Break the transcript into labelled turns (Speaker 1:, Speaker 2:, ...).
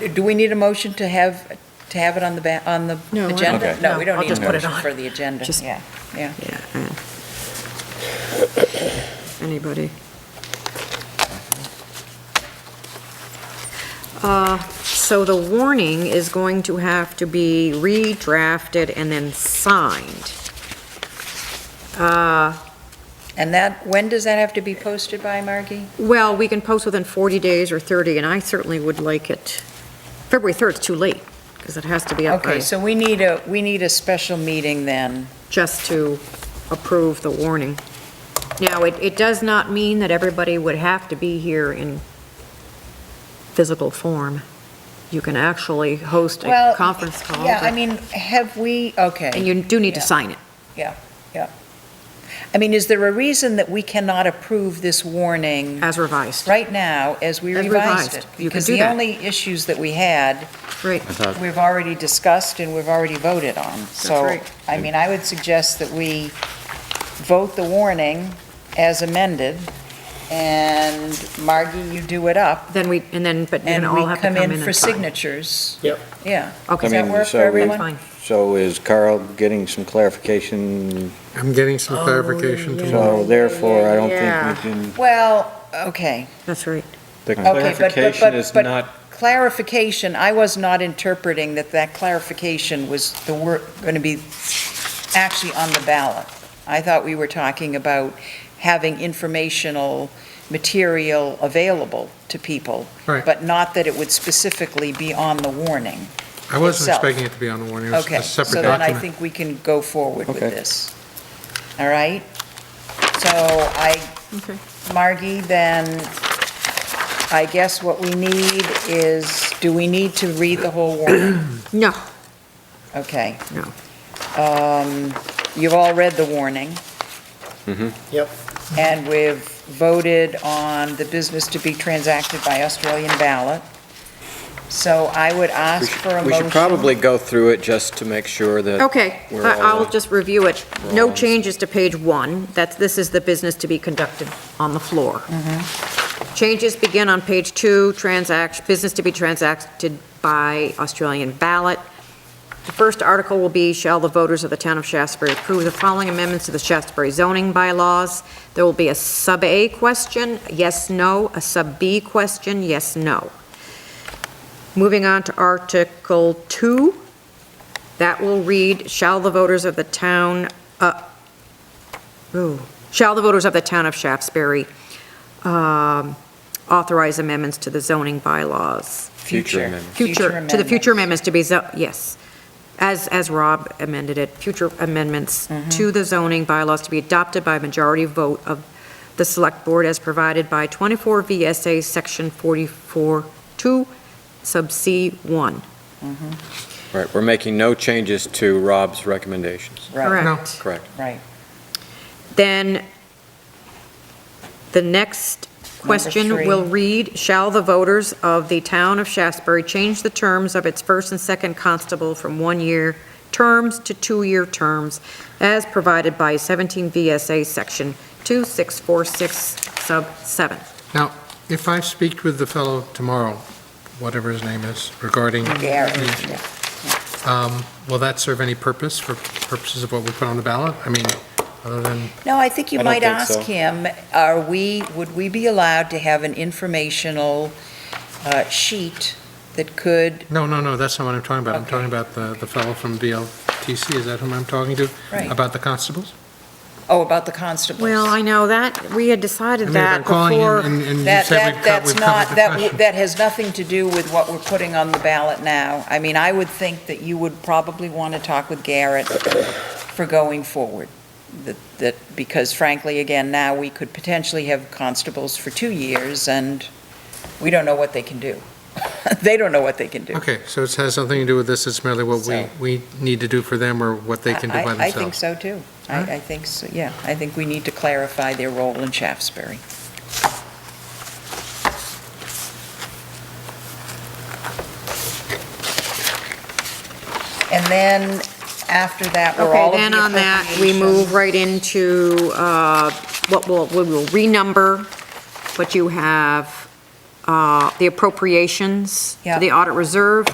Speaker 1: Do we need a motion to have, to have it on the, ba- on the
Speaker 2: No, I don't-
Speaker 1: agenda?
Speaker 2: Okay.
Speaker 1: No, we don't
Speaker 2: no, I'll
Speaker 1: need
Speaker 2: just
Speaker 1: a
Speaker 2: put it
Speaker 1: motion
Speaker 2: on.
Speaker 1: for the agenda,
Speaker 2: Just-
Speaker 1: yeah, yeah.
Speaker 2: Yeah. uh, Anybody? Uh, So the warning is going to have to be redrafted and then signed. Uh,
Speaker 1: And that, when does that have to be posted by, Margie?
Speaker 2: Well, we can post within 40 days or 30, and I certainly would like it, February 3rd is too late, because it has to be up by,
Speaker 1: Okay, so we need a, we need a special meeting then.
Speaker 2: just to approve the warning. Now, it, it does not mean that everybody would have to be here in physical form. You can actually host a
Speaker 1: Well,
Speaker 2: conference call,
Speaker 1: Yeah, I
Speaker 2: but-
Speaker 1: mean, have we,
Speaker 2: and
Speaker 1: okay.
Speaker 2: you do need to
Speaker 1: yeah.
Speaker 2: sign it.
Speaker 1: I mean, is there a reason that we cannot approve this warning
Speaker 2: As revised,
Speaker 1: right now as we
Speaker 2: As
Speaker 1: revised it?
Speaker 2: revised, you can
Speaker 1: Because
Speaker 2: do
Speaker 1: the
Speaker 2: that.
Speaker 1: only issues that we had,
Speaker 2: right.
Speaker 3: I thought,
Speaker 1: we've already discussed and we've already voted on. So,
Speaker 2: right.
Speaker 1: I mean, I would suggest that we vote the warning as amended, and Margie, you do it up,
Speaker 2: Then we, and then, but you're
Speaker 1: and
Speaker 2: gonna all
Speaker 1: we
Speaker 2: have to come
Speaker 1: come
Speaker 2: in
Speaker 1: in
Speaker 2: and
Speaker 1: for
Speaker 2: sign.
Speaker 1: signatures.
Speaker 4: Yep.
Speaker 1: Yeah.
Speaker 2: Okay.
Speaker 1: Does that work for
Speaker 3: so we-
Speaker 2: That's
Speaker 1: everyone?
Speaker 2: fine.
Speaker 3: so is Carl getting some clarification?
Speaker 5: I'm getting some
Speaker 2: Oh,
Speaker 5: clarification
Speaker 2: yeah,
Speaker 5: tomorrow.
Speaker 3: So therefore, I don't
Speaker 2: Yeah.
Speaker 3: think we can,
Speaker 1: Well, okay.
Speaker 2: That's right.
Speaker 3: the
Speaker 1: Okay, but- but-
Speaker 3: clarification
Speaker 1: but-
Speaker 3: is
Speaker 1: but
Speaker 3: not,
Speaker 1: Clarification, I was not interpreting that that clarification was the word, going to be actually on the ballot. I thought we were talking about having informational material available to people,
Speaker 5: Right.
Speaker 1: but not that it would specifically be on the warning.
Speaker 5: I wasn't
Speaker 1: itself.
Speaker 5: expecting it to be on the warning, it was
Speaker 1: Okay,
Speaker 5: a
Speaker 1: so
Speaker 5: separate
Speaker 1: then I
Speaker 5: document.
Speaker 1: think we can go forward with
Speaker 3: Okay.
Speaker 1: this. All right? So I,
Speaker 2: Okay.
Speaker 1: Margie, then, I guess what we need is, do we need to read the whole warning?
Speaker 2: No,
Speaker 1: Okay.
Speaker 2: No.
Speaker 1: Um, You've all read the warning,
Speaker 3: Mm-hmm.
Speaker 4: Yep.
Speaker 1: and we've voted on the business to be transacted by Australian ballot. So I would
Speaker 3: we
Speaker 1: ask for a
Speaker 3: should-
Speaker 1: motion.
Speaker 3: we should probably go through it just to make sure that.
Speaker 2: okay,
Speaker 3: We're
Speaker 2: I-
Speaker 3: all-
Speaker 2: I'll just review it.
Speaker 3: We're
Speaker 2: No
Speaker 3: all-
Speaker 2: changes to page one, that's, this is the business to be conducted on the floor.
Speaker 3: Mm-hmm.
Speaker 2: Changes begin on page two, transact, business to be transacted by Australian ballot. The first article will be, shall the voters of the town of Shaftesbury approve the following amendments to the Shaftesbury zoning bylaws? There will be a sub-A question, yes, no, a sub-B question, yes, no. Moving on to Article two, that will read, shall the voters of the town, uh, ooh, shall the voters of the town of Shaftesbury um, authorize amendments to the zoning bylaws?
Speaker 3: Future amendments.
Speaker 2: Future, to the future
Speaker 1: amendments.
Speaker 2: amendments to be, zo- yes, as, as Rob amended it, future amendments to the zoning bylaws to be adopted by majority vote of the select board as provided by 24 VSA Section 44-2, sub C 1.
Speaker 3: Right, we're making no changes to Rob's recommendations,
Speaker 1: Right,
Speaker 2: Correct.
Speaker 3: correct?
Speaker 1: right.
Speaker 2: Then the next question
Speaker 1: three.
Speaker 2: will read, shall the voters of the town of Shaftesbury change the terms of its first and second constable from one-year terms to two-year terms as provided by 17 VSA Section 2646 sub 7?
Speaker 5: If I speak with the fellow tomorrow, whatever his name is, regarding,
Speaker 1: Gary, yeah.
Speaker 3: Mm-hmm.
Speaker 5: um, will that serve any purpose for purposes of what we put on the ballot? I mean, other than,
Speaker 1: No, I think you
Speaker 3: I don't
Speaker 1: might
Speaker 3: think
Speaker 1: ask
Speaker 3: so.
Speaker 1: him, are we, would we be allowed to have an informational uh, sheet that could,
Speaker 5: no, no, no, that's not what I'm talking about. I'm
Speaker 1: Okay.
Speaker 5: talking about the, the fellow from BLTC, is that whom I'm talking to?
Speaker 1: Right.
Speaker 5: About the constables?
Speaker 1: oh, about the constables?
Speaker 2: Well, I know that, we had
Speaker 5: I
Speaker 2: decided
Speaker 5: mean, if
Speaker 2: that
Speaker 5: I'm calling him
Speaker 2: before.
Speaker 5: and- and you
Speaker 1: That,
Speaker 5: said we've
Speaker 1: that,
Speaker 5: cut-
Speaker 1: that's
Speaker 5: we've covered
Speaker 1: not,
Speaker 5: the
Speaker 1: that, w-
Speaker 5: question.
Speaker 1: that has nothing to do with what we're putting on the ballot now. I mean, I would think that you would probably want to talk with Garrett for going forward. That, that, because frankly, again, now we could potentially have constables for two years and we don't know what they can do. They don't know what they can do.
Speaker 5: Okay, so it has something to do with this, it's merely what we,
Speaker 1: So-
Speaker 5: we need to do for them or what they can do
Speaker 1: I-
Speaker 5: by
Speaker 1: I- I think
Speaker 5: themselves?
Speaker 1: so, too.
Speaker 5: Alright.
Speaker 1: I, I think, so. yeah, I think we need to clarify their role in Shaftesbury. And then, after that, we're all
Speaker 2: Okay,
Speaker 1: of
Speaker 2: then
Speaker 1: the
Speaker 2: on that, we
Speaker 1: appropriations.
Speaker 2: move right into uh, what will, we will renumber, but you have uh, the appropriations to
Speaker 1: Yeah.
Speaker 2: the audit reserve.